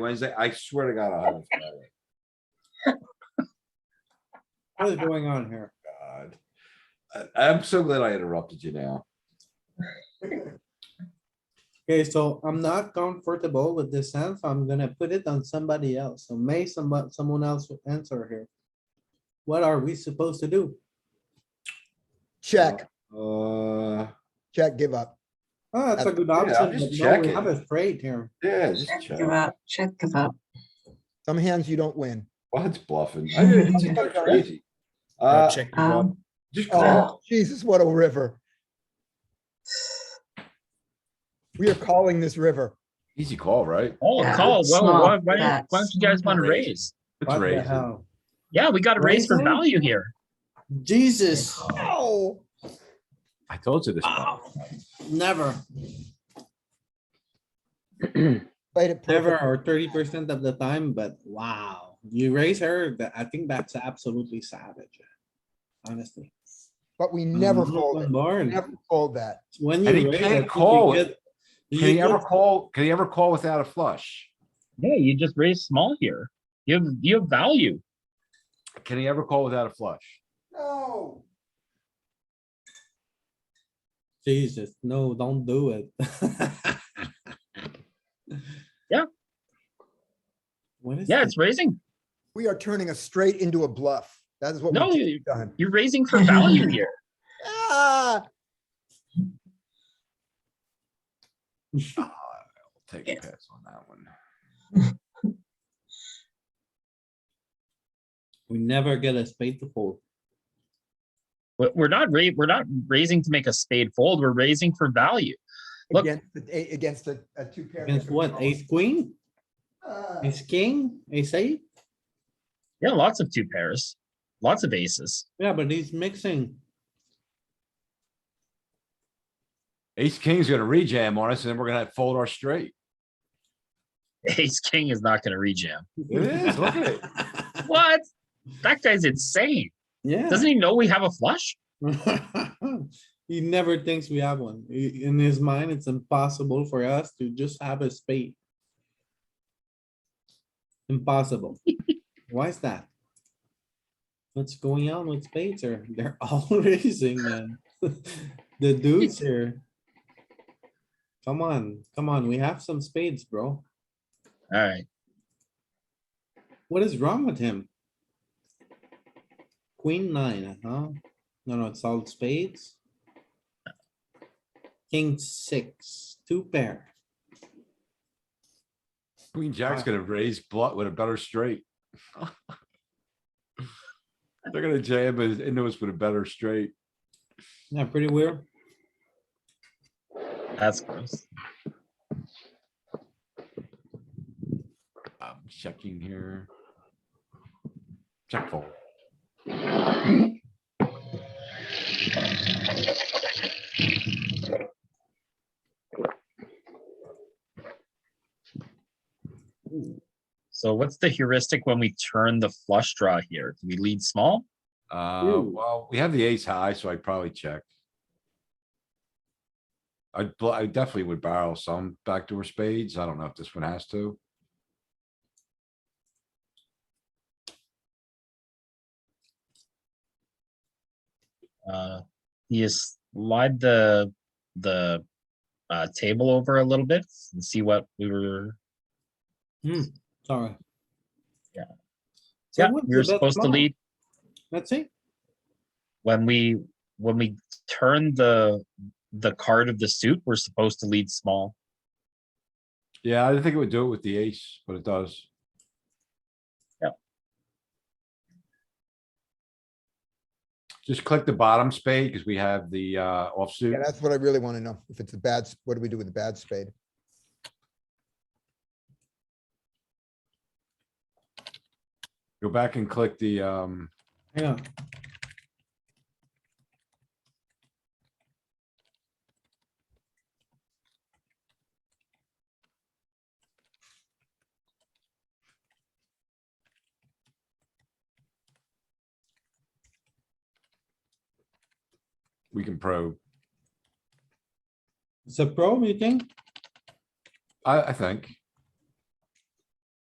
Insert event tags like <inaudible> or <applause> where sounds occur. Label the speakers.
Speaker 1: Wednesday, I swear to God, I'll have it Friday.
Speaker 2: What is going on here?
Speaker 1: God. I, I'm so glad I interrupted you now.
Speaker 2: Okay, so I'm not comfortable with this hand, so I'm gonna put it on somebody else. So may somebody, someone else will answer here. What are we supposed to do?
Speaker 3: Check,
Speaker 1: Uh,
Speaker 3: check, give up.
Speaker 2: Oh, that's a good
Speaker 1: I'm just
Speaker 2: option, but no, we
Speaker 1: checking.
Speaker 2: have a straight here.
Speaker 1: yeah, just
Speaker 4: Check,
Speaker 1: check.
Speaker 4: give up, check, give up.
Speaker 3: Some hands you don't win.
Speaker 1: Well, it's bluffing. I mean, it's kinda crazy. Uh,
Speaker 5: check.
Speaker 4: Um,
Speaker 1: just call.
Speaker 3: Oh, Jesus, what a river. We are calling this river.
Speaker 1: Easy call, right?
Speaker 5: Oh,
Speaker 4: Yeah,
Speaker 5: call. Why,
Speaker 4: small
Speaker 5: why, why, why
Speaker 4: bets.
Speaker 5: don't you guys want to raise?
Speaker 1: It's
Speaker 2: What the
Speaker 1: raised.
Speaker 2: hell?
Speaker 5: Yeah, we got to raise for
Speaker 2: Raising?
Speaker 5: value here.
Speaker 2: Jesus,
Speaker 3: Oh,
Speaker 1: I told you this.
Speaker 2: never,
Speaker 3: played it
Speaker 2: never,
Speaker 3: perfect.
Speaker 2: or thirty percent of the time, but wow, you raise her, that, I think that's absolutely savage. Honestly.
Speaker 3: But we never
Speaker 2: Um,
Speaker 3: fold it.
Speaker 2: Barn.
Speaker 3: Never fold that.
Speaker 2: When
Speaker 1: And he
Speaker 2: you. raise, I
Speaker 1: can't
Speaker 2: think you
Speaker 1: call
Speaker 2: get-
Speaker 1: it.
Speaker 2: you
Speaker 1: Can he
Speaker 2: get-
Speaker 1: ever call, can he ever call without a flush?
Speaker 5: Yeah, you just raise small here. You have, you have value.
Speaker 1: Can he ever call without a flush?
Speaker 3: No.
Speaker 2: Jesus, no, don't do it.
Speaker 5: <laughs> Yeah.
Speaker 2: What is?
Speaker 5: Yeah,
Speaker 2: this?
Speaker 5: it's raising.
Speaker 3: We are turning a straight into a bluff. That is what
Speaker 5: No,
Speaker 3: we've
Speaker 5: you-
Speaker 3: done.
Speaker 5: you're raising for
Speaker 4: <laughs>
Speaker 5: value here.
Speaker 3: Ah,
Speaker 1: I'll Take a pass on that one.
Speaker 2: We never get a spade to fold.
Speaker 5: But We're not ra- we're not raising to make a spade fold. We're raising for value. Look.
Speaker 3: against, the- a- against a, a two pair.
Speaker 2: Against what? Ace queen?
Speaker 3: Ah,
Speaker 2: Ace king? Ace eight?
Speaker 5: Yeah, lots of two pairs, lots of aces. <laughs>
Speaker 2: Yeah, but he's mixing.
Speaker 1: Ace King's gonna rejam on us and then we're gonna fold our straight.
Speaker 5: Ace king is not going to rejam.
Speaker 1: It is, look at it.
Speaker 5: What? That guy's insane. Doesn't
Speaker 2: <laughs> Yeah.
Speaker 5: he know we have a flush?
Speaker 2: <laughs> He never thinks we have one. I- In his mind, it's impossible for us to just have a spade. Impossible. Why is that? What's going on with spades here? <laughs> They're all raising, man. <laughs> The dudes here. Come on, come on, we have some spades, bro.
Speaker 5: All right.
Speaker 2: What is wrong with him? Queen nine, huh? No, no, it's all spades. King six, two pair.
Speaker 1: Queen Jack's
Speaker 2: Wow.
Speaker 1: gonna raise blunt with a better straight. They're gonna jam us into us with a better straight.
Speaker 2: Yeah, pretty weird.
Speaker 5: That's gross.
Speaker 1: I'm checking here. Check fold.
Speaker 5: So what's the heuristic when we turn the flush draw here? Do we lead small?
Speaker 1: Uh,
Speaker 2: Ooh.
Speaker 1: well, we have the ace high, so I'd probably check. I'd, bl- I definitely would barrel some backdoor spades. I don't know if this one has to.
Speaker 5: Uh, you slide the, the, uh, table over a little bit and see what we were,
Speaker 2: Sorry.
Speaker 5: Yeah.
Speaker 2: So
Speaker 5: yeah,
Speaker 2: what's
Speaker 5: we were
Speaker 2: the best
Speaker 5: supposed to
Speaker 2: plan?
Speaker 5: lead
Speaker 2: Let's see.
Speaker 5: when we, when we turn the, the card of the suit, we're supposed to lead small.
Speaker 1: Yeah, I didn't think it would do it with the ace, but it does.
Speaker 5: Yep.
Speaker 1: Just click the bottom spade because we have the uh
Speaker 3: Yeah,
Speaker 1: offsuit.
Speaker 3: that's what I really want to know. If it's a bad, s- what do we do with the bad spade?
Speaker 1: Go back and click the um,
Speaker 2: Hang on.
Speaker 1: we can probe.
Speaker 2: It's a probe, you think?
Speaker 1: I, I think.